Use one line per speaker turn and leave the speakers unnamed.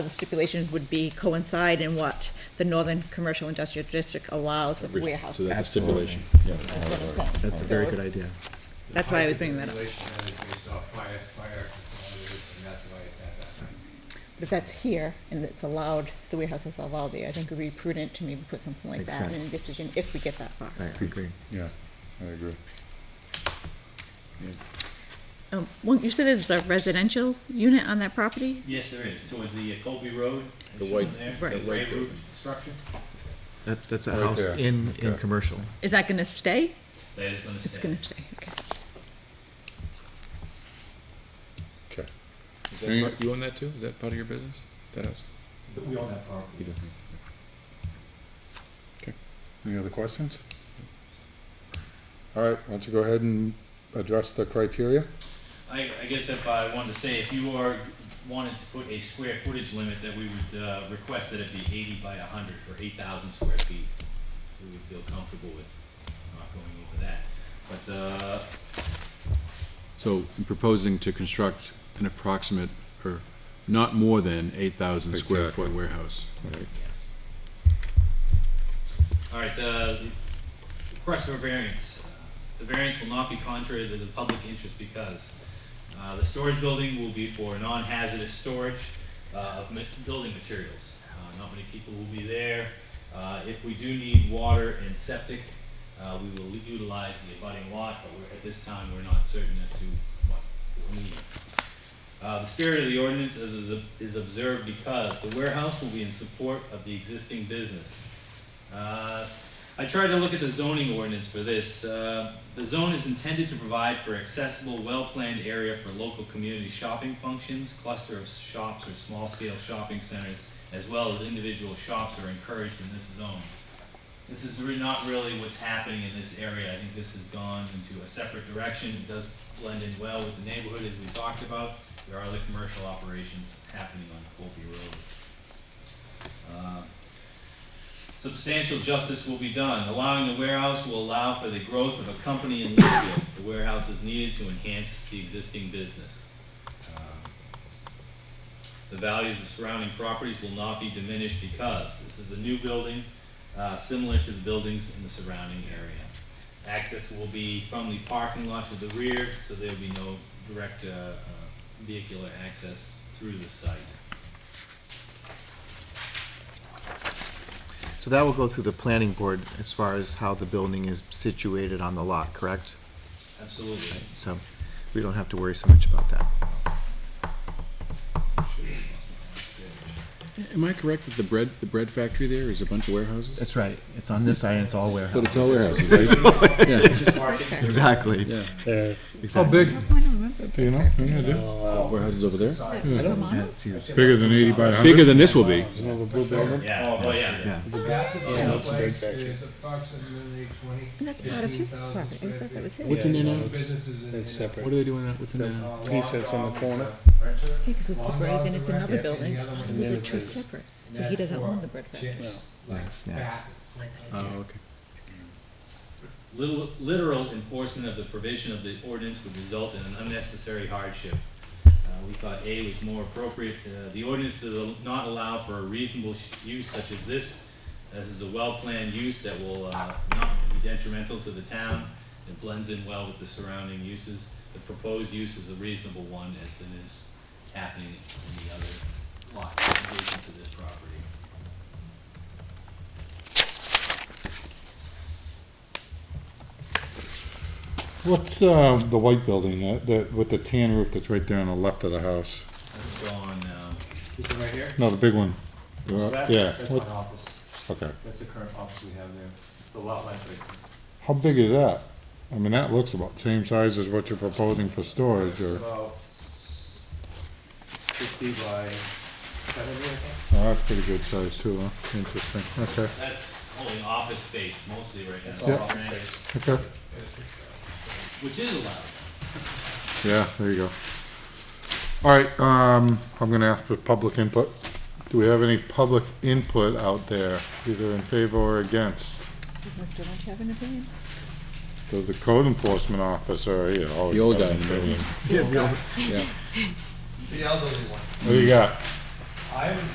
The stipulations would be coincide in what the Northern Commercial Industrial District allows with
So
warehouses.
that's stipulation, yeah.
That's a very good idea.
That's why I was bringing that up.
Regulation that is based off fire, fire consolidation, and that's why it's at that time.
But if that's here and it's allowed, the warehouse is allowed there, I think it would be prudent to maybe put something like
Makes
that in the
sense.
decision if we get that far.
I agree.
Yeah, I agree.
Um, well, you said there's a residential unit on that property?
Yes, there is, towards the uh, Colby Road. it's
The
shown
white-
there,
Right.
The gray roof structure,
That, that's a
Right
house
there.
in, in
Okay.
commercial.
Is that gonna stay?
that is gonna stay.
It's gonna stay, okay.
Okay.
Is
that
that
part-
you own that too? Is that part of your business? That house?
But we own that property.
Any other questions? All right, why don't you go ahead and address the criteria?
I, I guess if I wanted to say, if you are, wanted to put a square footage limit, that we would, uh, request that it be eighty by a hundred, or eight thousand square feet. We would feel comfortable with not going over that, but, uh,
So you're proposing to construct an approximate, or not more than eight thousand square
Exactly.
foot warehouse.
All right, uh, request for variance. The variance will not be contrary to the public interest because uh, the storage building will be for non-hazardous storage uh, of ma- building materials. Uh, Not many people will be there. Uh, If we do need water and septic, uh, we will utilize the abutting lot, but we're, at this time, we're not certain as to what we'll need. Uh, the spirit of the ordinance is, is- is observed because the warehouse will be in support of the existing business. Uh, I tried to look at the zoning ordinance for this. Uh, the zone is intended to provide for accessible, well-planned area for local community shopping functions, cluster of shops or small-scale shopping centers, as well as individual shops are encouraged in this zone. This is re- not really what's happening in this area. I think this has gone into a separate direction. It does blend in well with the neighborhood as we talked about. There are other commercial operations happening on Colby Road. Uh, Substantial justice will be done. Allowing the warehouse will allow for the growth of a company in Litchfield. The warehouse is needed to enhance the existing business. Um, The values of surrounding properties will not be diminished because this is a new building, uh, similar to the buildings in the surrounding area. Access will be from the parking lot to the rear, so there'll be no direct, uh, uh, vehicular access through the site.
So that will go through the planning board as far as how the building is situated on the lot, correct?
Absolutely.
So we don't have to worry so much about that.
Am I correct that the bread, the bread factory there is a bunch of warehouses?
That's right. It's on this side, and it's all warehouses.
But it's all warehouses, right?
Exactly.
They're
How
exactly.
big? Do you know? Any idea?
Warehouses over there?
Hmm. Yeah, it's huge.
Bigger than eighty by hundred?
Bigger than this will be.
another blue building.
Yeah, oh, well, yeah.
Yeah.
Yeah, that's a big
Place
factory.
is approximately twenty.
And that's part of his
15,000
property, I
square
thought that
feet.
was his.
What's in there now?
It's,
Businesses in
it's
there.
What
separate.
are they doing, now? what's in there? now?
Uh,
piece that's
Long
in the
Dog is a
corner.
renter.
Yeah, cause it's the
Long
bread,
Dog
then
is
it's
a
another
renter, and
building,
the other one
so
is
those
then
are
a
it
two
says-
separate, so
That's
he doesn't
for
own the bread factory.
chips,
Yeah,
Like
snacks.
baskets.
Oh, okay.
Lit- Literal enforcement of the provision of the ordinance would result in an unnecessary hardship. Uh, We thought A was more appropriate. Uh, The ordinance does not allow for a reasonable sh- use such as this. This is a well-planned use that will uh, not be detrimental to the town. It blends in well with the surrounding uses. The proposed use is a reasonable one as it is happening in the other lot adjacent to this property.
What's, uh, the white building, that, that, with the tan roof that's right there on the left of the house?
Let's go on now.
This one right here?
No, the big one. Uh,
That-
Yeah,
That's my
what,
office.
okay.
That's the current office we have there. The lot line right there.
How big is that? I mean, that looks about the same size as what you're proposing for storage,
It's
or, oh,
about fifty by seventy, I think.
oh, that's pretty good size too, huh? Interesting, okay,
That's only office space mostly right now.
all
office space.
okay.
Which is allowed.
Yeah, there you go. All right, um, I'm gonna ask for public input. Do we have any public input out there, either in favor or against?
Does Mr. Lynch have an opinion?
Does the code enforcement officer here always?
The old
have
guy in the
an opinion?
Yeah.
The elderly one.
What do you got?
I'm